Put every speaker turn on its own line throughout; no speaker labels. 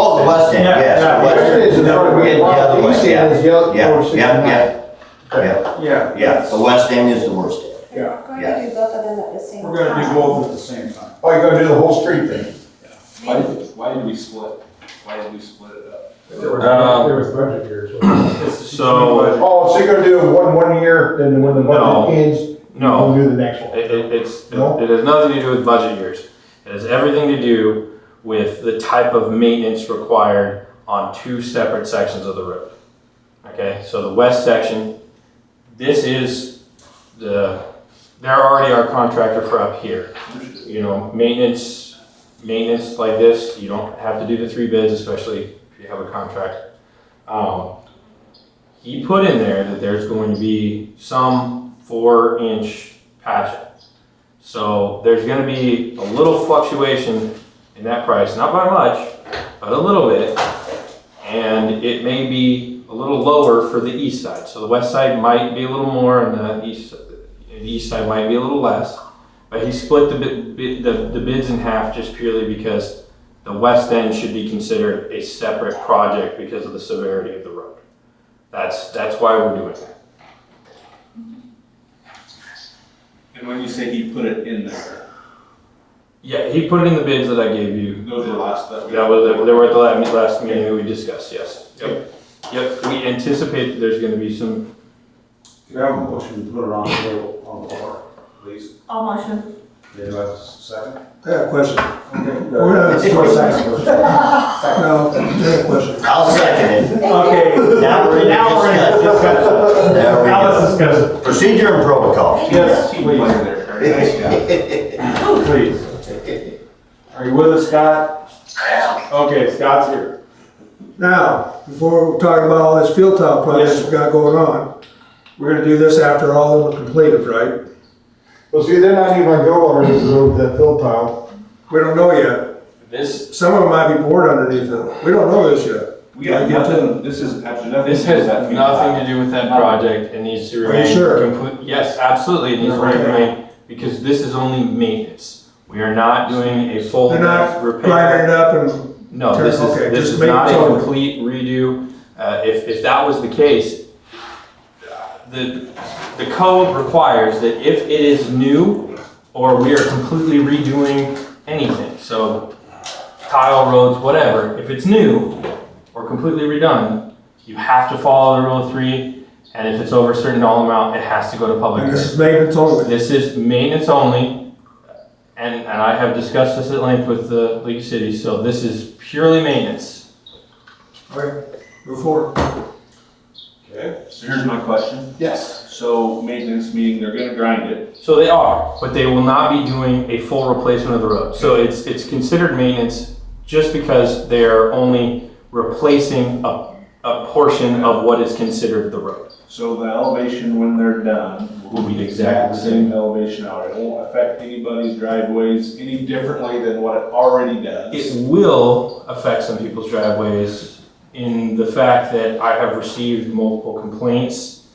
west end,
Yeah,
yes,
yeah.
the west
Where
end.
it is in front of
Yeah,
the
the other
east
way,
end
yeah.
is yellow-
Yeah,
or six
yeah,
and
yeah, yeah,
Yeah.
yeah, the west end is the worst end.
We're going
Yeah.
to do both of them at the same time.
We're gonna do both at the same time.
Oh, you're gonna do the whole street thing?
Why did, why did we split, why did we split it up?
There was,
Um,
there was budget years. wasn't
So, uh,
Oh, so you're gonna do one, one year, then when the
No.
budget ends,
no,
we'll do the next one?
It, it, it's,
No?
it has nothing to do with budget years. It has everything to do with the type of maintenance required on two separate sections of the road. Okay, so the west section, this is the, they're already our contractor for up here. You know, maintenance, maintenance like this, you don't have to do the three bids, especially if you have a contract. Um, he put in there that there's going to be some four inch patch. So there's gonna be a little fluctuation in that price, not by much, but a little bit. And it may be a little lower for the east side, so the west side might be a little more and the east, and the east side might be a little less. But he split the bid, bid, the, the bids in half just purely because the west end should be considered a separate project because of the severity of the road. That's, that's why we're doing that.
And when you say he put it in there,
Yeah, he put in the bids that I gave you.
those were the last that we.
That was, they were at the last, last meeting that we discussed, yes. Yep. Yep, we anticipate that there's gonna be some,
You have a motion to put it on the table, on the floor, please.
I'll motion.
Did you have a second?
I got a question. We're
Okay.
gonna have a short second. No, I got a question.
I'll second it.
Okay.
Now we're in
Now we're in
discussion. There we
Now
go.
let's discuss it.
Procedure and protocol.
Yes,
Team player there, Kurt. Nice guy.
please. Are you with us, Scott? Okay, Scott's here.
Now, before we talk about all this field tile projects we got going on, we're gonna do this after all of them are completed, right?
Well, see, they're not even gonna go under this road, that fill tile.
We don't know yet.
this,
Some of them might be bored underneath it. We don't know this yet.
We got nothing, this is absolutely nothing.
this has nothing to do with that project, it needs to
Are you
remain.
sure?
complete- Yes, absolutely, it needs to
Okay.
remain, because this is only maintenance. We are not doing a full
They're not
depth repair.
Grinding it up and,
No, this is,
Okay,
this
just
is
make
not
it
a
over.
complete redo. Uh, if, if that was the case, the, the code requires that if it is new or we are completely redoing anything, so tile roads, whatever, if it's new or completely redone, you have to follow the rule of three, and if it's over a certain dollar amount, it has to go to public
and
hearing.
this is maintenance only.
This is maintenance only, and, and I have discussed this at length with the League of Cities, so this is purely maintenance.
All right, move forward.
So here's my question.
Yes.
So maintenance meeting, they're gonna grind it.
So they are, but they will not be doing a full replacement of the road. So it's, it's considered maintenance just because they're only replacing a, a portion of what is considered the road.
So the elevation when they're done will be the exact same elevation out. It won't affect anybody's driveways any differently than what it already does.
It will affect some people's driveways in the fact that I have received multiple complaints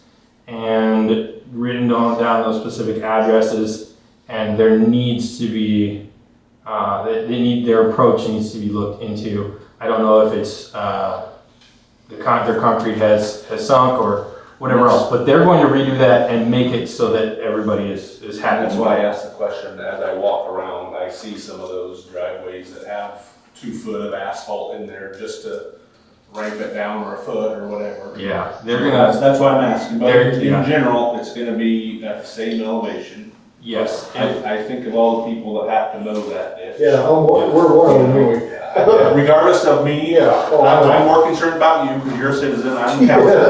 and written down, down those specific addresses, and there needs to be, uh, they, they need, their approach needs to be looked into. I don't know if it's, uh, the con, their concrete has, has sunk or whatever else, but they're going to redo that and make it so that everybody is, is happy.
And that's why I asked the question, as I walk around, I see some of those driveways that have two foot of asphalt in there just to ramp it down or a foot or whatever.
Yeah, they're gonna,
That's, that's why I'm asking, but
They're-
in
yeah.
general, it's gonna be at the same elevation.
yes. and-
I, I think of all the people that have to mow that ditch.
Yeah, I'm- we're one of them, anyway.
Yeah, Regardless of me,
Yeah. oh, I
I'm,
know.
I'm more concerned about you, because you're a citizen, I'm a council.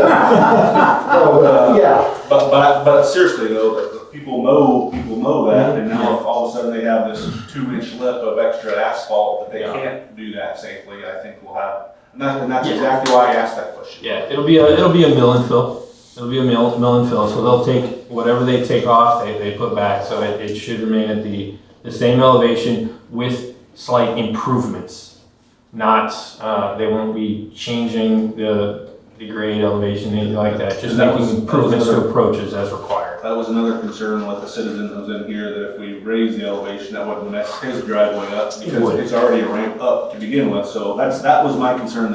Oh, Yeah.
But, but, but seriously though, the- the people mow, people mow that,
Mm-hmm.
and now if all of a sudden they have this two inch lip of extra asphalt that they
Yeah.
can't do that safely, I think we'll have, and that, and that's
Yeah.
exactly why I asked that question.
Yeah, it'll be a, it'll be a mill and fill. It'll be a mill, mill and fill, so they'll take, whatever they take off, they, they put back, so it, it should remain at the, the same elevation with slight improvements. Not, uh, they won't be changing the, the grade elevation, anything like that, just
And that was-
making improvements
that was
to approaches as required.
That was another concern with the citizen that was in here, that if we raise the elevation, that would mess his driveway up,
would.
because it's already a ramp up to begin with, so that's, that was my concern